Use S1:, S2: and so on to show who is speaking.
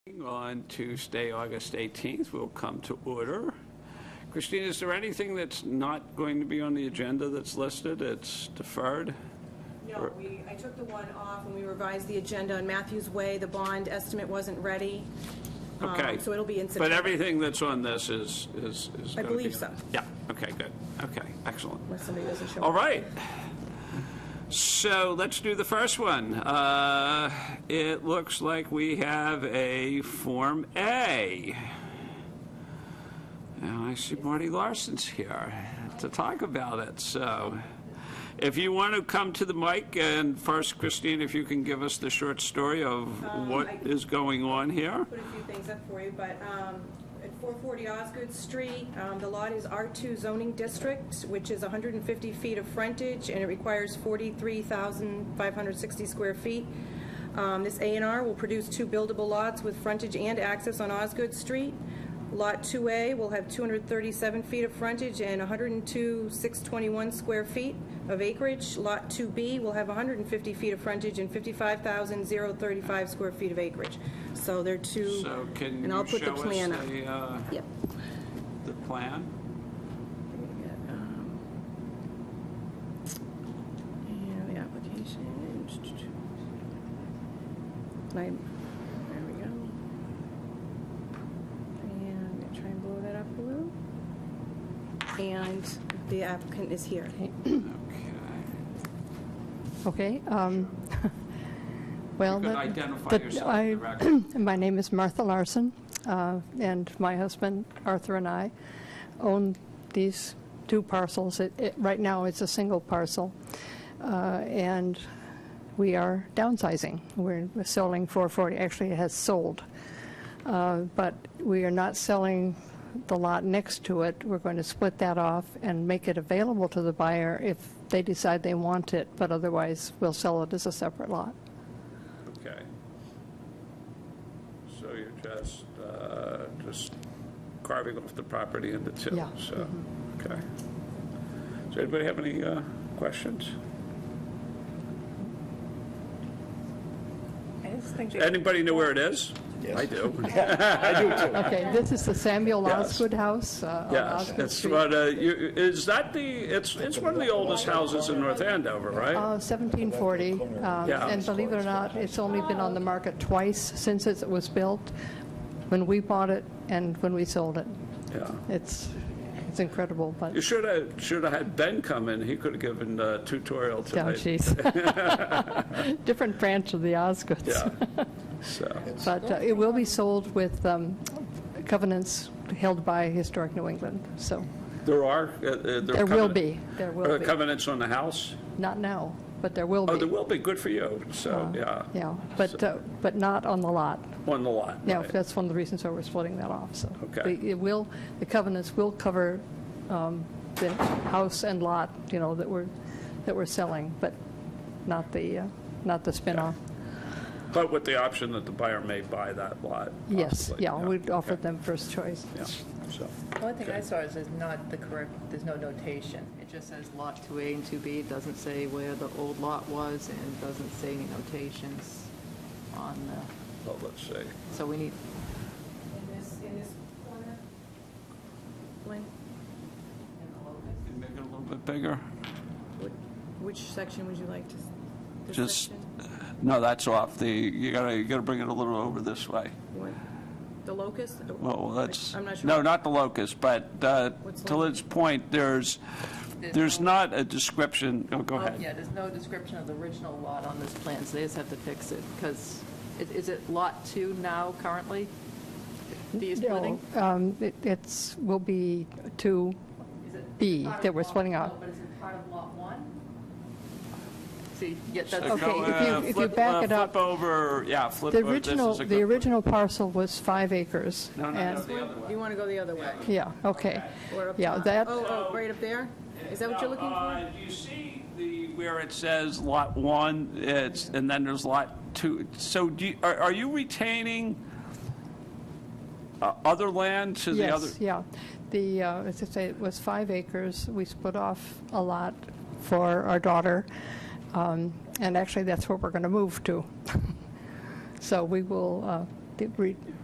S1: On Tuesday, August 18th, we'll come to order. Christine, is there anything that's not going to be on the agenda that's listed, it's deferred?
S2: No, we, I took the one off and we revised the agenda on Matthews Way. The bond estimate wasn't ready. Um,
S1: Okay.
S2: So it'll be in
S1: But
S2: September,
S1: everything that's on this is, is, is
S2: I
S1: gonna be
S2: believe
S1: on
S2: so.
S1: it. Yeah, okay, good, okay, excellent.
S2: unless somebody doesn't show
S1: All
S2: up.
S1: right. So let's do the first one. Uh, It looks like we have a Form A. And I see Marty Larson's here to talk about it, so if you want to come to the mic, and first, Christine, if you can give us the short story of what
S2: Um, I-
S1: is going on here?
S2: Put a few things up for you, but um, at 440 Osgood Street, um, the lot is R2 zoning district, which is 150 feet of frontage and it requires 43,560 square feet. Um, This A and R will produce two buildable lots with frontage and access on Osgood Street. Lot 2A will have 237 feet of frontage and 102,621 square feet of acreage. Lot 2B will have 150 feet of frontage and 55,035 square feet of acreage. So they're two,
S1: So can
S2: and I'll
S1: you
S2: put the
S1: show us
S2: plan up.
S1: the, uh,
S2: Yep.
S1: the plan?
S2: Um, And the application. And I, there we go. And I'm gonna try and blow that up a little. And the applicant is here.
S1: Okay.
S3: Okay, um, well.
S1: You could
S3: the-
S1: identify
S3: the-
S1: yourself
S3: I-
S1: for the record.
S3: My name is Martha Larson, uh, and my husband Arthur and I own these two parcels. It- it- Right now, it's a single parcel, uh, and we are downsizing. We're selling 440, actually, it has sold. Uh, But we are not selling the lot next to it. We're going to split that off and make it available to the buyer if they decide they want it, but otherwise, we'll sell it as a separate lot.
S1: Okay. So you're just, uh, just carving off the property into two?
S3: Yeah. mm-hmm.
S1: So, okay. Does anybody have any uh, questions? Anybody know where it is? Yes. I do.
S3: Okay, this is the Samuel
S1: Yes.
S3: Osgood House. uh, on
S1: Yes,
S3: Osgood
S1: it's,
S3: Street.
S1: what, uh, you- is that the, it's, it's one of the oldest houses in North Andover, right?
S3: Uh, 1740, um,
S1: Yeah.
S3: and believe it or not, it's only been on the market twice since it was built, when we bought it and when we sold it.
S1: Yeah.
S3: It's, it's incredible, but,
S1: You should have, should have had Ben come in, he could have given a tutorial
S3: oh
S1: tonight.
S3: geez. Different branch of the Osgoods.
S1: Yeah, so.
S3: But uh, it will be sold with um, covenants held by Historic New England, so
S1: There are, uh, uh, there are.
S3: there will
S1: covenant-
S3: be, there
S1: Are
S3: will
S1: there
S3: be.
S1: covenants on the house?
S3: Not now, but there will be.
S1: Oh, there will be, good for you, so, yeah.
S3: Yeah, but, uh, but not on the lot.
S1: On the lot,
S3: Yeah,
S1: right.
S3: that's one of the reasons why we're splitting that off, so.
S1: Okay.
S3: the- It will, the covenants will cover um, the house and lot, you know, that we're, that we're selling, but not the, uh, not the spin-off.
S1: But with the option that the buyer may buy that lot.
S3: Yes,
S1: possibly,
S3: yeah, we'd offer
S1: okay,
S3: them first choice.
S1: Yeah, so,
S4: The only thing I saw is there's not the correct, there's no notation. It just says Lot 2A and 2B, It doesn't say where the old lot was, and it doesn't say any notations on the,
S1: well, let's see.
S4: so we need,
S2: In this, in this corner. Lynn,
S1: Make it a little bit bigger?
S2: wh- which section would you like to? s- this
S1: Just- uh,
S2: section?
S1: No, that's off the, you gotta, you gotta bring it a little over this way.
S2: You want The locus?
S1: Well, that's,
S2: I'm not sure.
S1: no, not the locust, but uh,
S2: What's
S1: to
S2: like-
S1: Lynn's point, there's, there's not a description, oh, go ahead.
S4: yeah, there's no description of the original lot on this plan, so they just have to fix it, because is it Lot 2 now currently? B splitting?
S3: No, um, it- It's, will be two,
S4: Is it
S3: B
S4: part of
S3: that we're
S4: Lot-
S3: splitting out.
S4: No, but is it part of Lot 1? See, yeah, that's.
S1: So
S3: Okay,
S1: go,
S3: if you-
S1: uh,
S3: if you
S1: flip-
S3: back
S1: uh,
S3: it up-
S1: Flip over, yeah, flip
S3: the
S1: over, this
S3: original,
S1: is a
S3: the
S1: good.
S3: original parcel was five acres.
S1: No, no,
S3: and-
S1: no, the other way.
S2: You want to go the other way?
S3: Yeah, okay.
S2: Or up
S3: Yeah,
S2: top?
S3: that,
S2: Oh, oh, right up there? Is that what you're looking
S1: Do
S2: for?
S1: uh, you see the, where it says Lot 1, it's, and then there's Lot 2? So do, you- are are you retaining uh, other land to the other?
S3: Yes, yeah. The, uh, as I say, it was five acres. We split off a lot for our daughter, Um, and actually, that's where we're going to move to. So we will, uh, the re-